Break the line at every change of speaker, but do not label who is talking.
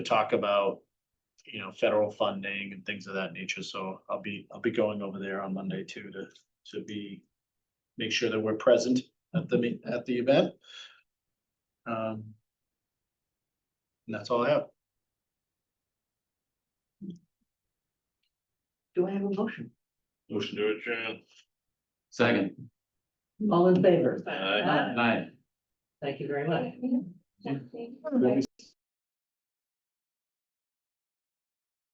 to talk about, you know, federal funding and things of that nature. So I'll be, I'll be going over there on Monday too to, to be, make sure that we're present at the, me- at the event. Um, And that's all I have.
Do I have a motion?
Motion to adjourn.
Second,
All in favor?
Aye.
Aye.
aye.
Thank you very much.
Yeah.
Let me